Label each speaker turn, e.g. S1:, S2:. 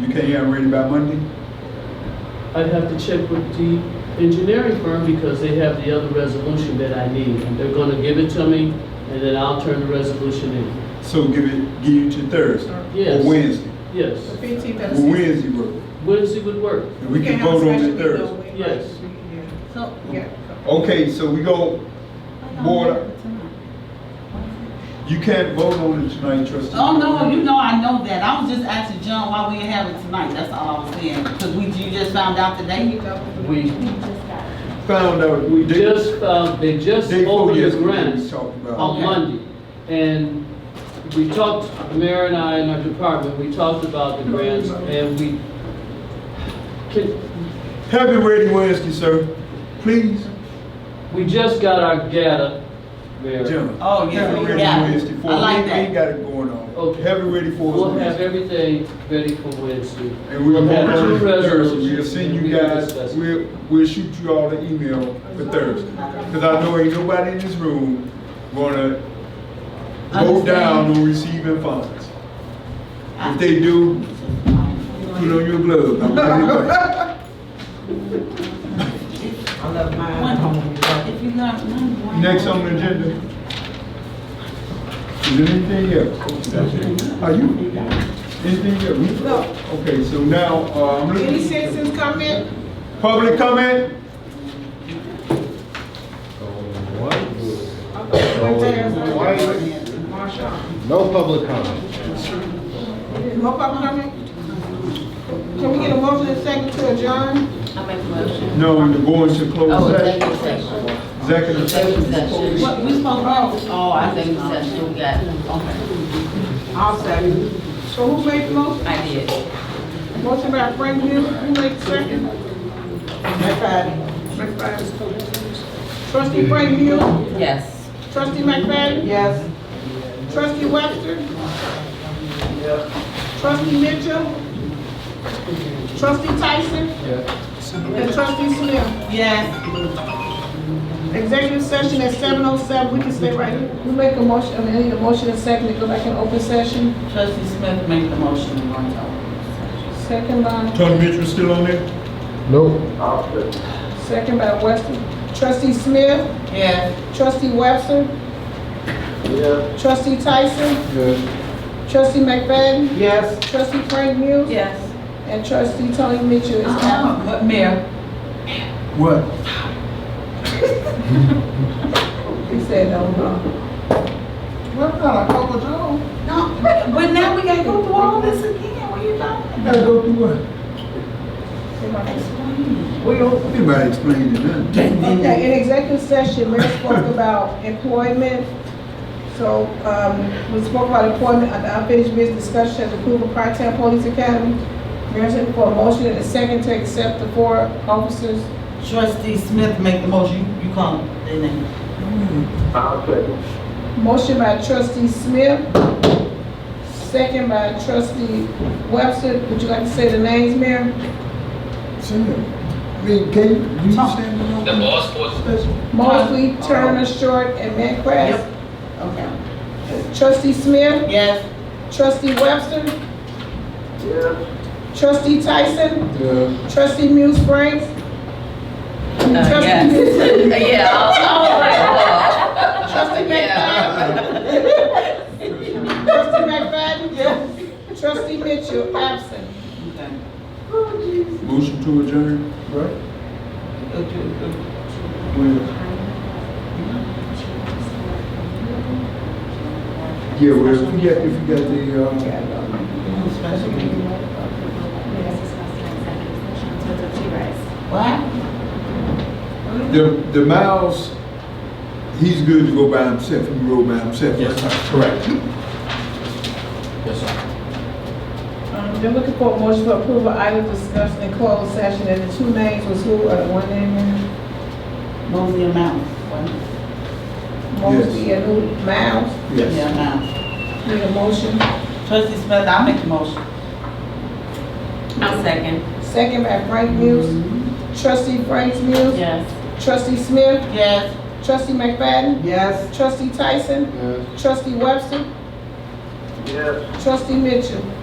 S1: You can't have them ready by Monday?
S2: I'd have to check with the engineering firm because they have the other resolution that I need. They're gonna give it to me and then I'll turn the resolution in.
S1: So give it, give it to Thursday?
S2: Yes.
S1: Or Wednesday?
S2: Yes,
S3: Fifteenth
S1: Or
S3: and sixteenth.
S1: Wednesday work?
S2: Wednesday would work.
S1: And we can vote on it Thursday.
S2: Yes.
S3: So, yeah.
S1: Okay, so we go, Board, you can't vote on it tonight, trustee.
S4: Oh, no, you know, I know that. I was just asking John why we didn't have it tonight. That's all I was saying. Because we, you just found out today.
S2: We
S1: Found out, we did.
S2: just, uh, they just
S1: Day four
S2: opened the
S1: yesterday, we
S2: grants
S1: talked about it.
S2: on
S4: Okay.
S2: Monday. And we talked, the Mayor and I and our department, we talked about the grants and we, can,
S1: Have it ready Wednesday, sir, please.
S2: we just got our data, Mayor.
S1: Gentlemen.
S4: Oh, yeah,
S1: Have it
S4: we
S1: ready
S4: got it.
S1: Wednesday for
S4: I
S1: us.
S4: like
S1: We
S4: that.
S1: ain't got it going on.
S2: Okay.
S1: Have it ready for us.
S2: We'll have
S1: Wednesday.
S2: everything ready for Wednesday.
S1: And we'll vote
S2: We'll have
S1: on
S2: two
S1: it Thursday. We'll
S2: resolutions
S1: send
S2: and
S1: you
S2: we can
S1: guys,
S2: discuss it.
S1: we'll, we'll shoot you all an email for Thursday. Cause I know ain't nobody in this room gonna vote
S4: Understand.
S1: down on receiving funds. If they do, put on your gloves. I'm telling you what.
S4: If you not, none.
S1: Next on the agenda. Is there anything else? Are you, anything else?
S3: No.
S1: Okay, so now, uh, I'm
S3: Any
S1: looking,
S3: citizens comment?
S1: public comment?
S3: Marshawn.
S5: No public comment.
S3: No public comment? Can we get a motion and second to adjourn?
S6: I make a motion.
S1: No, we're going to
S6: Oh,
S1: close session.
S6: executive session.
S1: Executive
S6: Executive
S1: session.
S6: session.
S4: What, we spoke about? Oh, I think,
S6: Executive session, we got, okay,
S3: I'll second. So who made the motion?
S6: I did.
S3: Motion by Frank Miller, who made the second? McFadden. McFadden. Trustee Frank Miller?
S6: Yes.
S3: Trustee McFadden?
S4: yes.
S3: Trustee Webster? Trustee Mitchell? Trustee Tyson? And trustee Smith.
S4: Yes.
S3: Executive session at seven oh seven, we can stay right here. You make a motion, I mean, I need a motion and second to go back in open session.
S4: Trustee Smith made the motion. We're going to-
S3: Second by,
S1: Tony Mitchell still on there?
S5: No.
S3: second by Webster. Trustee Smith?
S4: Yes.
S3: Trustee Webster? Yeah. Trustee Tyson?
S1: Yes.
S3: Trustee McFadden?
S4: Yes.
S3: Trustee Frank Muse?
S4: Yes.
S3: And trustee Tony Mitchell is absent.
S4: Uh-uh, But Mayor,
S1: What?
S3: He said no, no.
S1: What about a couple of
S4: no, but now we gotta go through all this again. What are you talking
S1: Gotta go through what?
S4: about? Explain.
S1: We don't. Anybody explain it, huh?
S3: Okay, in executive session, Mayor spoke about employment. So, um, we spoke about employment, uh, unfinished business discussion, as approval of part-time police academy. Mayor said for a motion and a second to accept the four officers.
S4: Trustee Smith made the motion. You you call their name.
S3: Motion by trustee Smith, second by trustee Webster. Would you like to say the names, Mayor?
S1: Send it. I mean, can you, you send it on? The boss
S3: Mosley, Turner, Short, and Metcalf.
S4: Okay.
S3: Trustee Smith,
S4: Yes.
S3: trustee Webster. Trustee Tyson,
S1: Yeah.
S3: trustee Muse Franks.
S6: Uh,
S3: Trustee
S6: yes.
S3: Muse.
S6: Yeah. I-
S3: Trustee
S6: I was like,
S3: McFadden.
S6: whoa. Yeah.
S3: Trustee McFadden? Yes. Trustee Mitchell, absent.
S4: Okay.
S1: Motion to adjourn, right? Well, Yeah, well, if we got, if we got the, uh,
S4: What?
S1: the, the Miles, he's good to go by himself, he can roll by himself.
S5: correct. Yes, sir.
S3: Um, They're looking for a motion for approval, items discussed in closed session, and the two names was who, or the one name, Mayor?
S4: Mosey and Mounds. What?
S3: Mosley and who, Miles?
S1: Yes.
S4: Yeah, Mounds.
S3: Need a motion?
S4: Trustee Smith, I make the motion.
S6: I'll second.
S3: Second by Frank Muse. Trustee Frank Muse?
S6: Yes.
S3: Trustee Smith?
S4: Yes.
S3: Trustee McFadden?
S4: Yes.
S3: Trustee Tyson? Trustee Webster? Yes. Trustee Mitchell?